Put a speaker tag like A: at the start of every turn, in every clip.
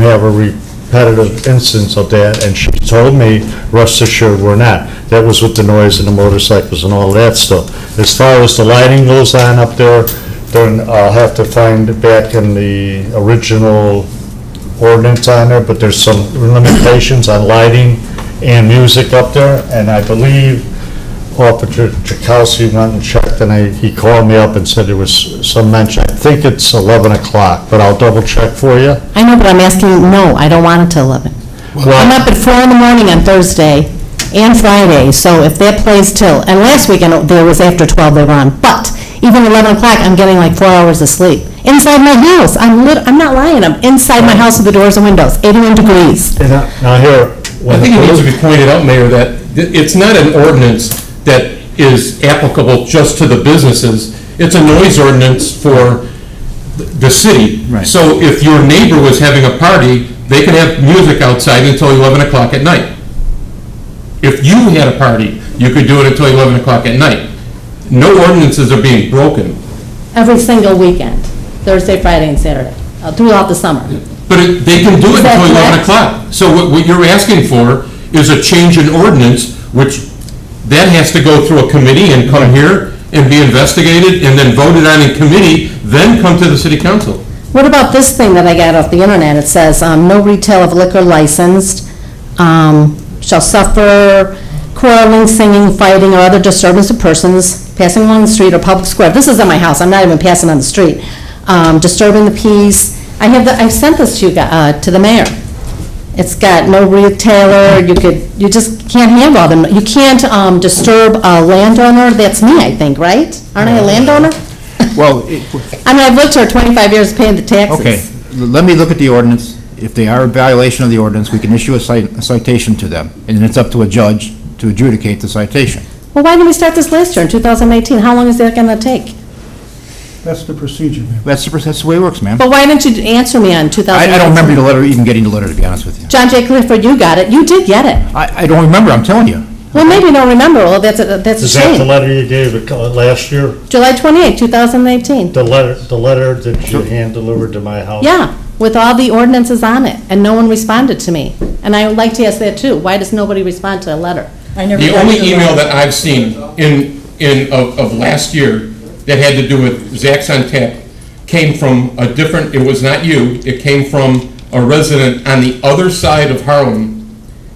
A: have a repetitive instance of that, and she told me, rest assured, we're not. That was with the noise and the motorcycles and all that stuff. As far as the lighting goes on up there, then I'll have to find back in the original ordinance on there, but there's some limitations on lighting and music up there, and I believe Officer Chakowski went and checked, and I, he called me up and said there was some mention, I think it's 11 o'clock, but I'll double check for you.
B: I know, but I'm asking, you. no, I don't want it till 11. I'm up at 4 in the morning on Thursday and Friday, so if that plays till, and last weekend, oh, there was after 12 they were on, but even 11 o'clock, I'm getting like four hours of sleep. Inside my house, I'm lit, I'm not lying, I'm inside my house with the doors and windows, 81 degrees.
A: And I- Now here,
C: I
A: when
C: think it needs to
A: the
C: be pointed out, Mayor, that th- it's not an ordinance that is applicable just to the businesses. It's a noise ordinance for th- the city.
D: Right.
C: So if your neighbor was having a party, they can have music outside until 11 o'clock at night. If you had a party, you could do it until 11 o'clock at night. No ordinances are being broken.
B: Every single weekend, Thursday, Friday, and Saturday, uh, throughout the summer.
C: But it- they can do
B: Is
C: it
B: that
C: until 11
B: correct?
C: o'clock. So what, what you're asking for is a change in ordinance, which that has to go through a committee and come here and be investigated and then voted on in committee, then come to the city council.
B: What about this thing that I got off the internet? It says, um, no retail of liquor licensed, um, shall suffer quarreling, singing, fighting, or other disturbance of persons passing along the street or public square. This is at my house, I'm not even passing on the street. Um, disturbing the peace. I have the, I sent this to you, gu- uh, to the mayor. It's got no retailer, you could, you just can't handle them. You can't, um, disturb a landowner. That's me, I think, right? Aren't I a landowner?
D: Well, it-
B: I mean, I've lived here twenty-five years paying the taxes.
D: okay, let me look at the ordinance. If they are a violation of the ordinance, we can issue a cite- a citation to them, and then it's up to a judge to adjudicate the citation.
B: Well, why didn't we start this last year in 2018? How long is that going to take?
E: That's the procedure, ma'am.
D: That's the, that's the way it works, ma'am.
B: But why didn't you answer me on 2018?
D: I I don't remember the letter, even getting the letter, to be honest with you.
B: John J. Clifford, you got it. You did get it.
D: I I don't remember, I'm telling you.
B: Well, maybe you don't remember. Well, that's a, that's a
A: is that the
B: shame.
A: letter you gave uh, last year?
B: July 28, 2018.
A: The letter, the letter that you hand delivered to my house?
B: Yeah, with all the ordinances on it, and no one responded to me. And I would like to ask that too. Why does nobody respond to a letter?
F: I never
C: The
F: got
C: only
F: your
C: email
F: letter.
C: that I've seen in, in, of, of last year that had to do with Zax on Tap came from a different, it was not you, it came from a resident on the other side of Harlem.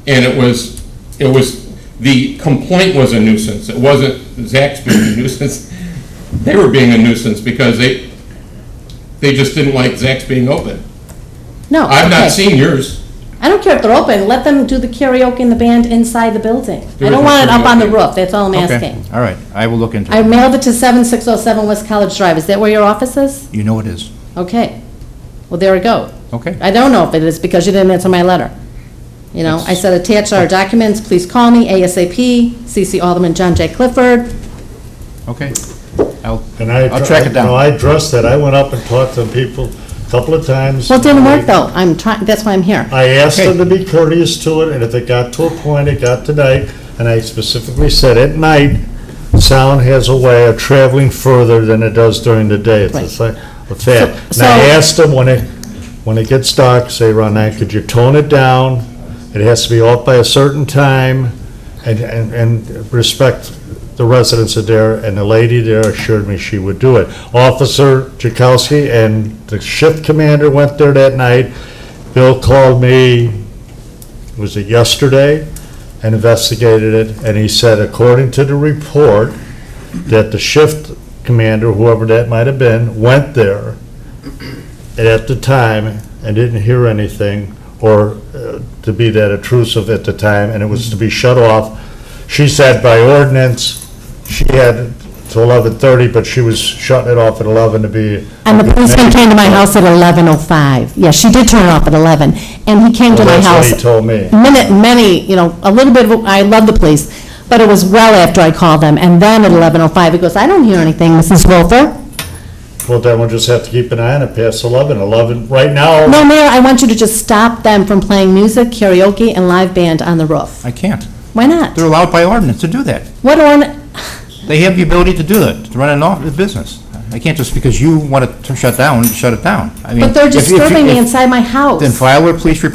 C: And it was, it was, the complaint was a nuisance. It wasn't Zax being a nuisance. They were being a nuisance because they, they just didn't like Zax being open.
B: No.
C: I've
B: okay.
C: not seen yours.
B: I don't care if they're open. Let them do the karaoke and the band inside the building.
C: There
B: I
C: is
B: don't
C: no
B: want it up on the
C: karaoke.
B: roof. That's all I'm
D: Okay,
B: asking.
D: all right, I will look into
B: I
D: it.
B: mailed it to 7607 West College Drive. Is that where your office is?
D: You know it is.
B: Okay, well, there we go.
D: Okay.
B: I don't know if it is because you didn't answer my letter. You know, I said attach our documents, please call me ASAP, CC Alderman John J. Clifford.
D: Okay. I'll
A: And I.
D: I'll track it down.
A: No, I addressed that, I went up and talked to people a couple of times.
B: Well, it didn't work though, I'm trying, that's why I'm here.
A: I asked
D: Okay.
A: them to be courteous to it, and if it got to a point, it got to night, and I specifically said, at night, sound has a way of traveling further than it does during the day. It's a
B: Right.
A: fa- a fact.
B: So-
A: And I
B: so-
A: asked them, when it, when it gets dark, say, Ron, now, could you tone it down? It has to be off by a certain time, and, and, and respect the residents of there, and the lady there assured me she would do it. Officer Jakowski and the shift commander went there that night. Bill called me, was it yesterday, and investigated it, and he said, according to the report, that the shift commander, whoever that might have been, went there at the time and didn't hear anything, or uh, to be that intrusive at the time, and it was to be shut off. She said by ordinance, she had to 11:30, but she was shutting it off at 11 to be.
B: And the policeman came to my house at 11:05. Yeah, she did turn it off at 11, and he came to
A: Well,
B: my
A: that's what
B: house.
A: he told me.
B: Minute, many, you know, a little bit, of- I love the police, but it was well after I called them, and then at 11:05, he goes, I don't hear anything, Mrs. Wilfer.
A: Well, then we'll just have to keep an eye on it past 11, 11, right now.
B: No, Mayor, I want you to just stop them from playing music, karaoke, and live band on the roof.
D: I can't.
B: Why not?
D: They're allowed by ordinance to do that.
B: What on,
D: They have the ability to do that, to run an office business. I can't just because you want it to shut down, shut it down. I mean,
B: But they're
D: if- if you-
B: disturbing me
D: if-
B: inside my house.
D: Then file a police report